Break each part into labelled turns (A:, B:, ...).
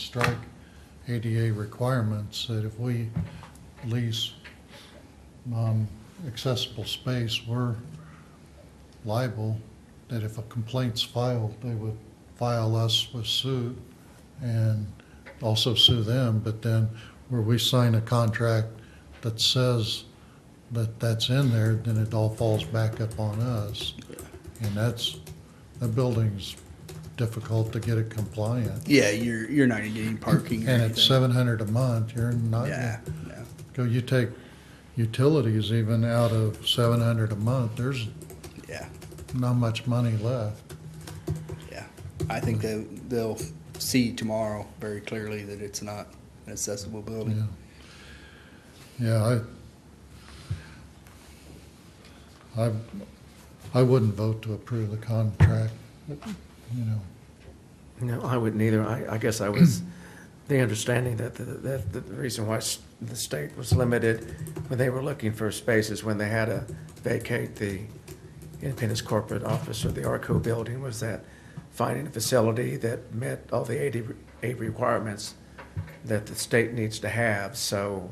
A: strike ADA requirements, that if we lease um, accessible space, we're liable, that if a complaint's filed, they would file us with suit and also sue them, but then where we sign a contract that says that that's in there, then it all falls back up on us. And that's, the building's difficult to get it compliant.
B: Yeah, you're you're not gonna get any parking. or
A: And at
B: anything.
A: seven hundred a month, you're not,
B: Yeah, yeah,
A: go, you take utilities even out of seven hundred a month, there's
B: yeah,
A: not much money left.
B: yeah. I think they they'll see tomorrow very clearly that it's not an accessible building.
A: Yeah, Yeah, I, I, I wouldn't vote to approve the contract, you know.
C: No, I wouldn't either. I, I guess I was, the understanding that, the- that the reason why s- the state was limited when they were looking for spaces, when they had to vacate the Independence Corporate Office or the ARCO building, was that finding a facility that met all the AD, re- AD requirements that the state needs to have. So,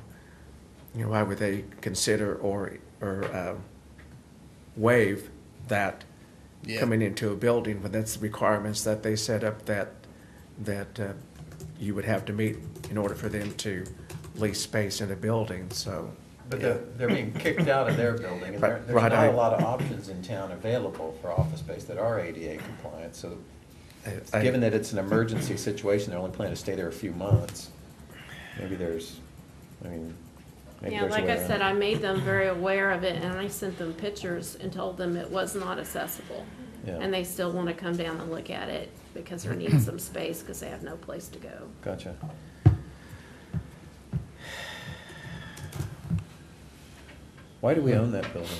C: you know, why would they consider or, or uh, waive that
B: Yeah.
C: coming into a building, but that's the requirements that they set up that, that uh, you would have to meet in order for them to lease space in a building, so.
D: But they're, they're being kicked out of their building, and there-
C: Right,
D: there's
C: right,
D: not
C: I-
D: a lot of options in town available for office space that are ADA compliant, so
C: I-
D: given that it's an emergency situation, they're only planning to stay there a few months, maybe there's, I mean, maybe
E: Yeah,
D: there's a
E: like
D: way
E: I
D: around
E: said,
D: it.
E: I made them very aware of it and I sent them pictures and told them it was not accessible.
D: Yeah.
E: And they still want to come down and look at it because they need some space because they have no place to go.
D: Gotcha. Why do we own that building?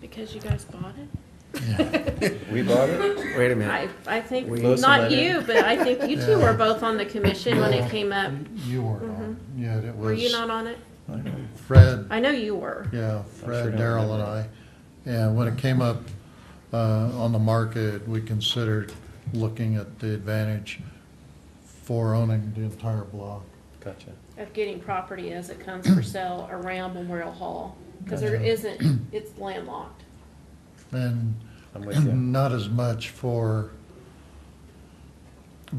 E: Because you guys bought it?
D: We bought it?
C: Wait a
E: I,
C: minute.
E: I think,
C: We-
D: Melissa
E: not
D: let in.
E: you, but I think you two
A: Yeah.
E: were both on the commission when it came up. Mm-hmm.
A: You weren't on, yeah, it was.
E: Were you not on it?
D: I know.
A: Fred,
E: I know you were.
A: yeah,
D: sure
A: Fred,
D: don't
A: Daryl and I.
D: remember.
A: And when it came up, uh, on the market, we considered looking at the advantage for owning the entire block.
D: Gotcha.
E: Of getting property as it comes for sale around Memorial Hall. Because there
A: Gotcha.
E: isn't, it's landlocked.
A: And
D: I'm with you.
A: not as much for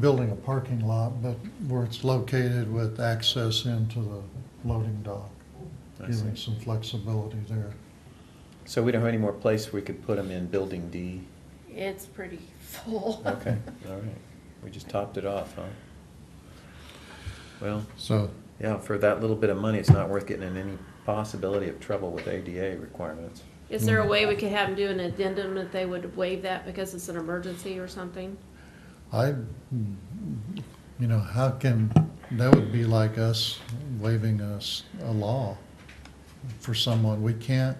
A: building a parking lot, but where it's located with access into the loading dock,
D: I
A: giving
D: see.
A: some flexibility there.
D: So we don't have any more place we could put them in Building D?
E: It's pretty full.
D: Okay, all right. We just topped it off, huh? Well,
A: So
D: yeah, for that little bit of money, it's not worth getting in any possibility of trouble with ADA requirements.
E: Is there a
A: Mm.
E: way we could have them do an addendum that they would waive that because it's an emergency or something?
A: I, you know, how can, that would be like us waiving us a law for someone. We can't,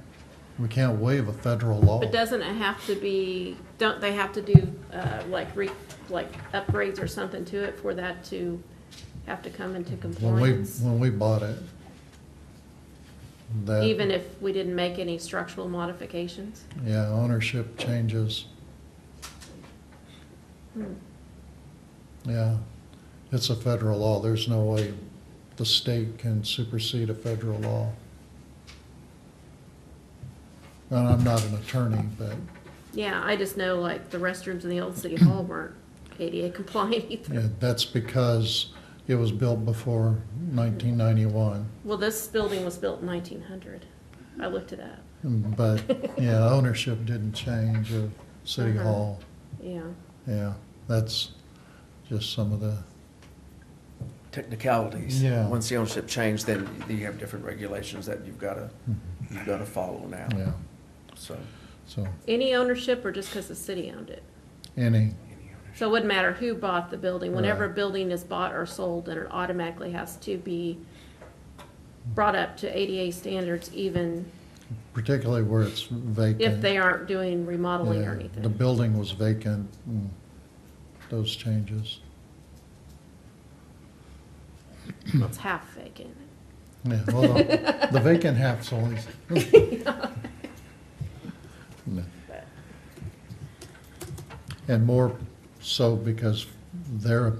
A: we can't waive a federal law.
E: But doesn't it have to be, don't they have to do, uh, like re, like upgrades or something to it for that to have to come into
A: When we,
E: compliance?
A: when we bought it. that-
E: Even if we didn't make any structural modifications?
A: Yeah, ownership changes. Yeah, it's a federal law. There's no way the state can supersede a federal law. And I'm not an attorney, but,
E: Yeah, I just know like the restrooms in the old city hall weren't ADA compliant either.
A: yeah, that's because it was built before nineteen ninety-one.
E: Well, this building was built in nineteen hundred. I looked it up,
A: But, yeah, ownership didn't change of City
E: Uh-huh.
A: Hall.
E: yeah.
A: Yeah, that's just some of the,
C: Technicalities.
A: Yeah.
C: Once the ownership changed, then you have different regulations that you've gotta, you've gotta follow now,
A: Mm-hmm. yeah,
C: so.
A: so,
E: Any ownership or just because the city owned it?
A: any.
E: So it wouldn't matter who bought the building, whenever a
A: Right.
E: building is bought or sold, then it automatically has to be brought up to ADA standards even
A: particularly where it's vacant.
E: if they aren't doing remodeling or
A: Yeah, The
E: anything.
A: building was vacant, and those changes,
E: Well, It's half vacant.
A: yeah, well, the the vacant half's always. No. And more so because their